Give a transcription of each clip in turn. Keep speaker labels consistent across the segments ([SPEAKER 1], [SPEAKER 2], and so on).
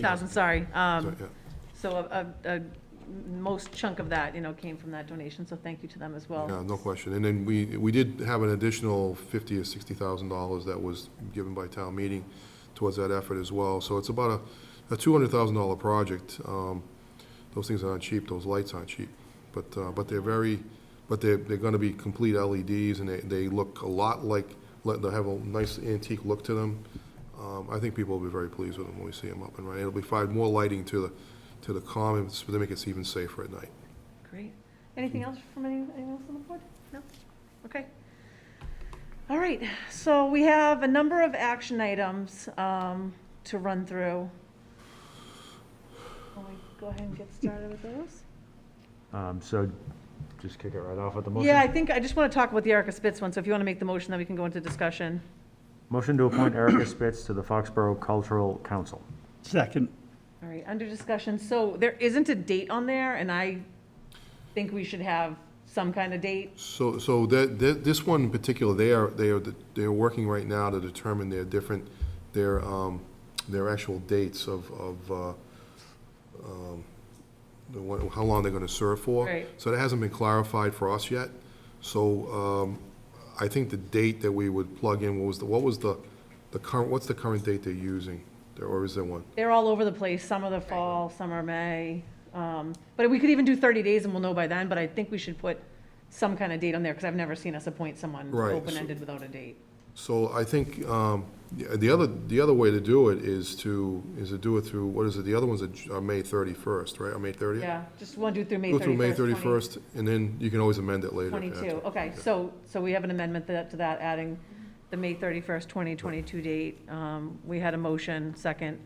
[SPEAKER 1] thousand, sorry. Um,
[SPEAKER 2] So, yeah.
[SPEAKER 1] So a, a, a most chunk of that, you know, came from that donation, so thank you to them as
[SPEAKER 2] Yeah,
[SPEAKER 1] well.
[SPEAKER 2] no question. And then we, we did have an additional fifty or sixty thousand dollars that was given by town meeting towards that effort as well. So it's about a, a two hundred thousand dollar project. Um, Those things aren't cheap, those lights aren't cheap. But, uh, but they're very, but they're, they're gonna be complete LEDs and they, they look a lot like, let- they have a nice antique look to them. Um, I think people will be very pleased with them when we see them up and running. It'll be five more lighting to the, to the common, so they make it even safer at night.
[SPEAKER 1] Great. Anything else from any- anyone else on the board? No? Okay. All right, so we have a number of action items, um, to run through. Can we go ahead and get started with those?
[SPEAKER 3] Um, so just kick it right off at the motion.
[SPEAKER 1] Yeah, I think, I just want to talk about the Erica Spitz one, so if you want to make the motion, then we can go into discussion.
[SPEAKER 3] Motion to appoint Erica Spitz to the Foxborough Cultural Council.
[SPEAKER 4] Second,
[SPEAKER 1] All right, under discussion, so there isn't a date on there, and I think we should have some kind of date.
[SPEAKER 2] So, so that, that, this one in particular, they are, they are, they are working right now to determine their different, their, um, their actual dates of, of, uh, um, the one, how long they're gonna serve for.
[SPEAKER 1] Right.
[SPEAKER 2] So that hasn't been clarified for us yet. So, um, I think the date that we would plug in, what was the, what was the, the current, what's the current date they're using? There- Or is there one?
[SPEAKER 1] They're all over the place, some are the fall, some are May. Um, But we could even do 30 days and we'll know by then, but I think we should put some kind of date on there, because I've never seen us appoint someone
[SPEAKER 2] Right, so-
[SPEAKER 1] open-ended without a date.
[SPEAKER 2] So I think um, the the other, the other way to do it is to, is to do it through, what is it, the other one's a J- uh, May 31st, right, or May 30th?
[SPEAKER 1] Yeah, just want to do through May 31st.
[SPEAKER 2] Go through May
[SPEAKER 1] 20
[SPEAKER 2] 31st, and then you can always amend it later. if you have to.
[SPEAKER 1] 22, okay, so, so we have an amendment that- to that, adding the May 31st, 2022 date. Um, We had a motion, second.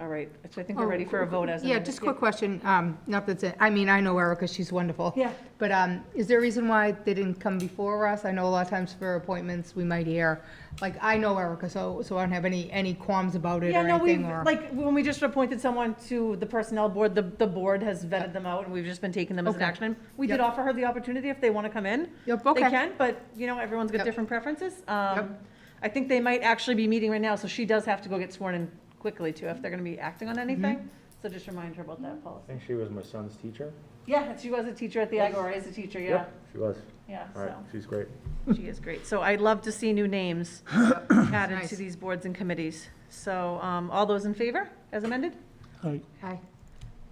[SPEAKER 1] All right, so I think we're ready for a vote as
[SPEAKER 5] Oh, Yeah,
[SPEAKER 1] amended.
[SPEAKER 5] just a quick question, um, not that's it, I mean, I know Erica, she's wonderful.
[SPEAKER 1] Yeah.
[SPEAKER 5] But, um, is there a reason why they didn't come before us? I know a lot of times for appointments, we might hear, like, I know Erica, so, so I don't have any, any qualms about it
[SPEAKER 1] Yeah,
[SPEAKER 5] or
[SPEAKER 1] no, we,
[SPEAKER 5] anything, or.
[SPEAKER 1] like, when we just appointed someone to the Personnel Board, the, the board has vetted them out, and we've just been taking them as an
[SPEAKER 5] Okay.
[SPEAKER 1] action. item. We did
[SPEAKER 5] Yep.
[SPEAKER 1] offer her the opportunity if they want to come in.
[SPEAKER 5] Yep,
[SPEAKER 1] They
[SPEAKER 5] okay.
[SPEAKER 1] can, but, you know, everyone's got
[SPEAKER 5] Yep.
[SPEAKER 1] different preferences. Um,
[SPEAKER 5] Yep.
[SPEAKER 1] I think they might actually be meeting right now, so she does have to go get sworn in quickly, too, if they're going to be acting on
[SPEAKER 5] Mm-hmm.
[SPEAKER 1] anything. So just remind her about that policy.
[SPEAKER 3] I think she was my son's teacher.
[SPEAKER 1] Yeah, she was a teacher at the Agora, is a teacher, yeah,
[SPEAKER 3] She was.
[SPEAKER 1] yeah,
[SPEAKER 3] All right,
[SPEAKER 1] so,
[SPEAKER 3] she's great.
[SPEAKER 1] she is great. So I'd love to see new names added to
[SPEAKER 5] Nice.
[SPEAKER 1] these boards and committees. So, um, all those in favor, as amended?
[SPEAKER 4] I,
[SPEAKER 5] Aye.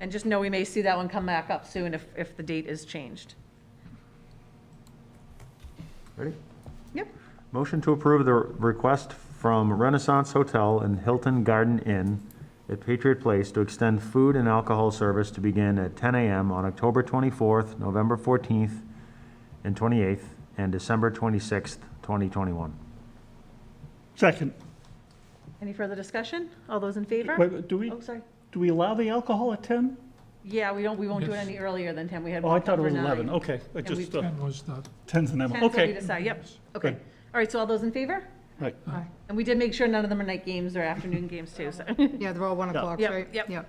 [SPEAKER 1] And just know we may see that one come back up soon if, if the date is changed.
[SPEAKER 3] Ready?
[SPEAKER 1] Yep.
[SPEAKER 3] Motion to approve the request from Renaissance Hotel and Hilton Garden Inn at Patriot Place to extend food and alcohol service to begin at 10 a.m. on October 24th, November 14th, and 28th, and December 26th, 2021.
[SPEAKER 4] second.
[SPEAKER 1] Any further discussion? All those in favor?
[SPEAKER 4] Wait, do we,
[SPEAKER 1] Oh, sorry.
[SPEAKER 4] do we allow the alcohol at 10?
[SPEAKER 1] Yeah, we don't, we won't do it any earlier than 10. We had
[SPEAKER 4] Oh, I
[SPEAKER 1] one
[SPEAKER 4] thought it
[SPEAKER 1] over
[SPEAKER 4] was 11,
[SPEAKER 1] nine.
[SPEAKER 4] okay. I
[SPEAKER 1] And we-
[SPEAKER 4] just, uh,
[SPEAKER 6] 10 was not,
[SPEAKER 4] 10's an M,
[SPEAKER 1] 10, so we
[SPEAKER 4] okay.
[SPEAKER 1] decide, yep, okay.
[SPEAKER 4] Good.
[SPEAKER 1] All right, so all those in favor?
[SPEAKER 4] Right.
[SPEAKER 5] Aye.
[SPEAKER 1] And we did make sure none of them are night games or afternoon games too, so.
[SPEAKER 5] Yeah, they're all one
[SPEAKER 4] Yeah.
[SPEAKER 5] o'clock,
[SPEAKER 1] Yep,
[SPEAKER 5] right?
[SPEAKER 1] yep.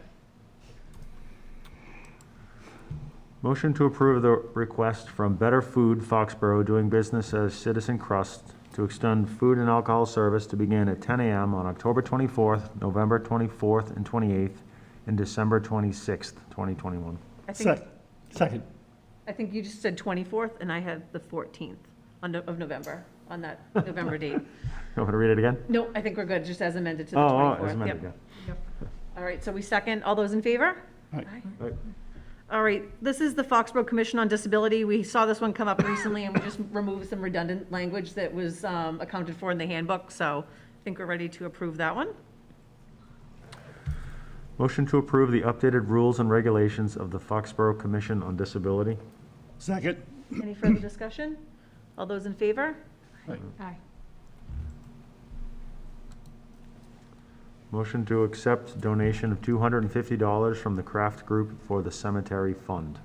[SPEAKER 3] Motion to approve the request from Better Food Foxborough doing business as Citizen Crust to extend food and alcohol service to begin at 10 a.m. on October 24th, November 24th and 28th, and December 26th, 2021.
[SPEAKER 1] I think,
[SPEAKER 4] Sec- Second,
[SPEAKER 1] I think you just said 24th and I had the 14th on no- of November, on that November date.
[SPEAKER 3] You want me to read it again?
[SPEAKER 1] No, I think we're good, just as amended to the
[SPEAKER 3] Oh,
[SPEAKER 1] 24th.
[SPEAKER 3] oh, as
[SPEAKER 1] Yep.
[SPEAKER 3] amended, yeah.
[SPEAKER 1] All right, so we second, all those in favor?
[SPEAKER 4] Aye.
[SPEAKER 3] Aye.
[SPEAKER 1] All right, this is the Foxborough Commission on Disability. We saw this one come up recently, and we just removed some redundant language that was um, accounted for in the handbook, so I think we're ready to approve that one.
[SPEAKER 3] Motion to approve the updated rules and regulations of the Foxborough Commission on Disability.
[SPEAKER 4] second,
[SPEAKER 1] Any further discussion? All those in favor?
[SPEAKER 5] Aye.
[SPEAKER 3] Motion to accept donation of $250 from the Kraft Group for the Cemetery Fund.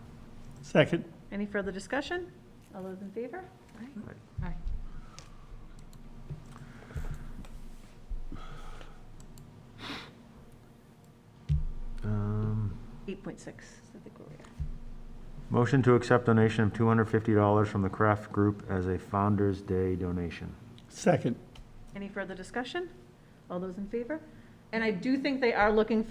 [SPEAKER 4] second,
[SPEAKER 1] Any further discussion? All those in favor?
[SPEAKER 5] Aye.
[SPEAKER 3] Um,
[SPEAKER 1] 8.6, is the Gloria.
[SPEAKER 3] Motion to accept donation of $250 from the Kraft Group as a Founder's Day donation.
[SPEAKER 4] second,
[SPEAKER 1] Any further discussion? All those in favor? And I do think they are looking for